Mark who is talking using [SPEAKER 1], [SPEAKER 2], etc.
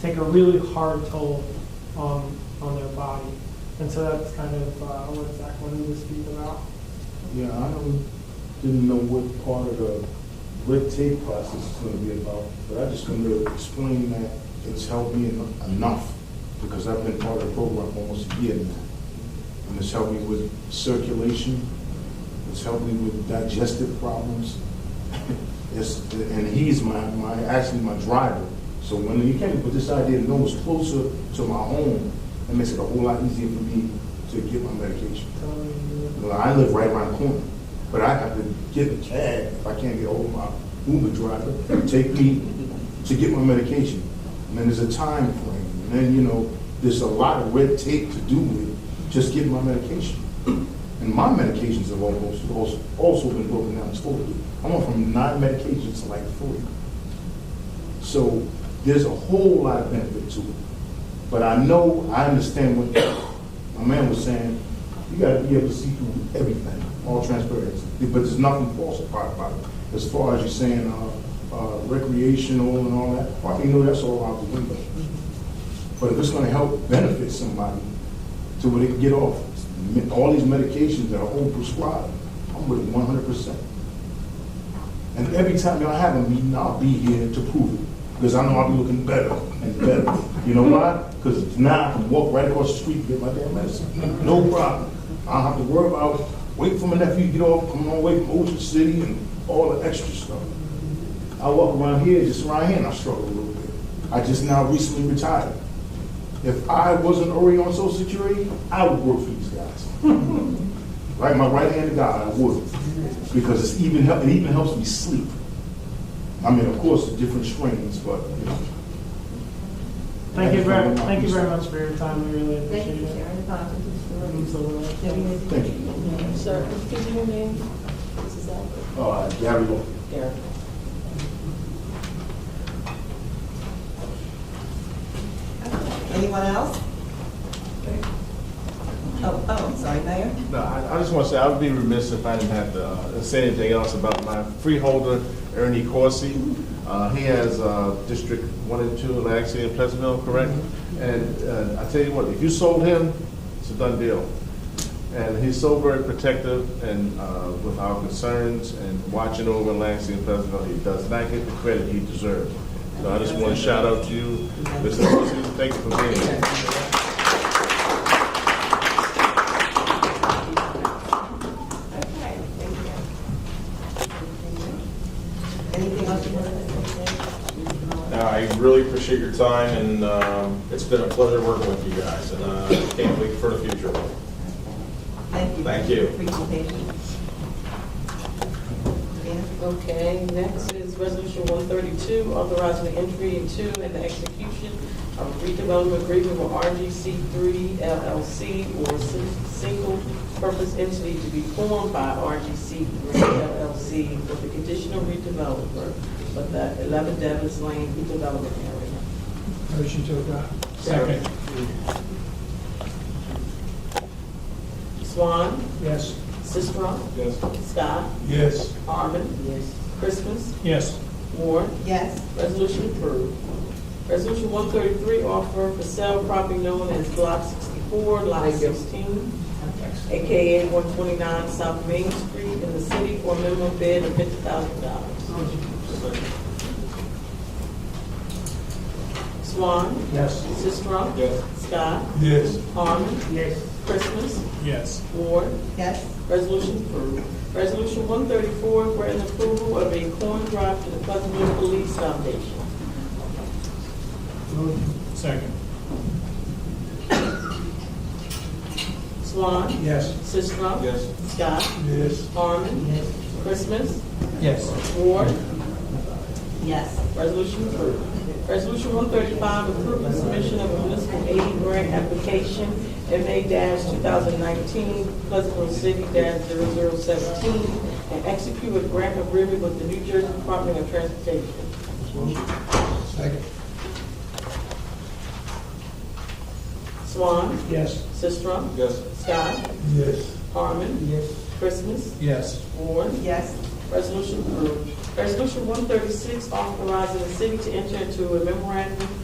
[SPEAKER 1] take a really hard toll on, on their body. And so that's kind of uh, what Zach wanted to speak about.
[SPEAKER 2] Yeah, I don't, didn't know what part of the red tape process is gonna be about, but I just wanted to explain that it's helped me en- enough, because I've been part of the program almost a year now. And it's helped me with circulation, it's helped me with digestive problems. It's, and he's my, my, actually my driver. So when he came up with this idea, to know it's closer to my home, it makes it a whole lot easier for me to get my medication.
[SPEAKER 1] Um,
[SPEAKER 2] Well, I live right around the corner, but I have to get a cab if I can't get hold of my Uber driver to take me to get my medication. And then there's a time frame, and then, you know, there's a lot of red tape to do with just getting my medication. And my medications have almost, also- also been broken down totally. I went from nine medications to like three. So there's a whole lot of benefit to it. But I know, I understand what my man was saying, you gotta be able to see through everything, all transparency. But there's nothing false about about it. As far as you saying, uh, uh, recreational and all that, well, you know, that's all out the window. But if it's gonna help benefit somebody to where they can get off me- all these medications that are overprescribed, I'm with one hundred percent. And every time y'all have a meeting, I'll be here to prove it, because I know I'll be looking better and better. You know why? Because now I can walk right across the street and get my damn medicine, no problem. I don't have to worry about, wait for my nephew to get off, come on away from Ocean City and all the extra stuff. I walk around here, just around here, and I struggle a little bit. I just now recently retired. If I wasn't already on social security, I would work for these guys. Like my right-handed guy, I would, because it's even, hel- it even helps me sleep. I mean, of course, the different strains, but, you know.
[SPEAKER 1] Thank you very, thank you very much for your time, we really
[SPEAKER 3] Thank
[SPEAKER 1] appreciate
[SPEAKER 3] you,
[SPEAKER 1] it.
[SPEAKER 3] Sharon.
[SPEAKER 1] Um, so, uh,
[SPEAKER 2] Thank you.
[SPEAKER 4] Sir, could you name? This is Albert.
[SPEAKER 2] Uh, Gary Law.
[SPEAKER 4] Derek.
[SPEAKER 3] Anyone else? Oh, oh, I'm sorry, Mayor.
[SPEAKER 5] No, I, I just want to say, I would be remiss if I didn't have to uh, say anything else about my freeholder, Ernie Corsi. Uh, he has, uh, District One and Two, Lansing and Pleasantville, correct? And, uh I tell you what, if you sold him, it's a done deal. And he's so very protective and, uh, with our concerns and watching over Lansing and Pleasantville, he does not get the credit he deserves. So I just want to shout out to you, Mr. Corsi, thank you for being here.
[SPEAKER 3] Okay, thank you. Anything else you want to say?
[SPEAKER 6] Uh, I really appreciate your time, and um, it's been a pleasure working with you guys, and uh, I can't wait for the future.
[SPEAKER 3] Thank you.
[SPEAKER 6] Thank you.
[SPEAKER 3] Presentation. Dana?
[SPEAKER 4] Okay, next is Resolution 132, authorizing the entry into and the execution of redevelopment agreement with RGC3 LLC or si- single purpose entity to be formed by RGC3 LLC for the conditional redeveloper of the 11 Davis Lane redevelopment area.
[SPEAKER 1] Motion to adopt.
[SPEAKER 6] Second.
[SPEAKER 4] Swan,
[SPEAKER 1] Yes.
[SPEAKER 4] Sisram,
[SPEAKER 5] Yes.
[SPEAKER 4] Scott,
[SPEAKER 2] Yes.
[SPEAKER 4] Harmon. Yes. Christmas,
[SPEAKER 1] Yes.
[SPEAKER 4] Warren,
[SPEAKER 3] Yes,
[SPEAKER 4] Resolution approved. Resolution 133, offer for sale property known as Block 64, Lot 16, AKA 129 South Main Street in the city for a minimum bid of $50,000. Swan,
[SPEAKER 1] Yes.
[SPEAKER 4] Sisram.
[SPEAKER 6] Yes.
[SPEAKER 4] Scott,
[SPEAKER 2] Yes.
[SPEAKER 4] Harmon,
[SPEAKER 1] Yes.
[SPEAKER 4] Christmas,
[SPEAKER 1] Yes.
[SPEAKER 4] Ward,
[SPEAKER 3] yes,
[SPEAKER 4] Resolution approved. Resolution 134, granting approval of a coin drop to the Pleasantville Police Foundation.
[SPEAKER 1] Second.
[SPEAKER 4] Swan,
[SPEAKER 1] Yes.
[SPEAKER 4] Sisram.
[SPEAKER 6] Yes.
[SPEAKER 4] Scott,
[SPEAKER 1] Yes.
[SPEAKER 4] Harmon. Christmas,
[SPEAKER 1] Yes.
[SPEAKER 4] Ward.
[SPEAKER 3] yes.
[SPEAKER 4] Resolution approved. Resolution 135, approving submission of a municipal aid grant application, MA-2019, Pleasantville City-0017, and execute a grant agreement with the New Jersey Department of Transportation.
[SPEAKER 1] Second.
[SPEAKER 4] Swan,
[SPEAKER 1] Yes.
[SPEAKER 4] Sisram,
[SPEAKER 6] Yes.
[SPEAKER 4] Scott,
[SPEAKER 1] Yes.
[SPEAKER 4] Harmon,
[SPEAKER 1] Yes.
[SPEAKER 4] Christmas,
[SPEAKER 1] Yes.
[SPEAKER 4] Ward.
[SPEAKER 3] Yes,
[SPEAKER 4] Resolution approved. Resolution 136, authorizing the city to enter into a memorandum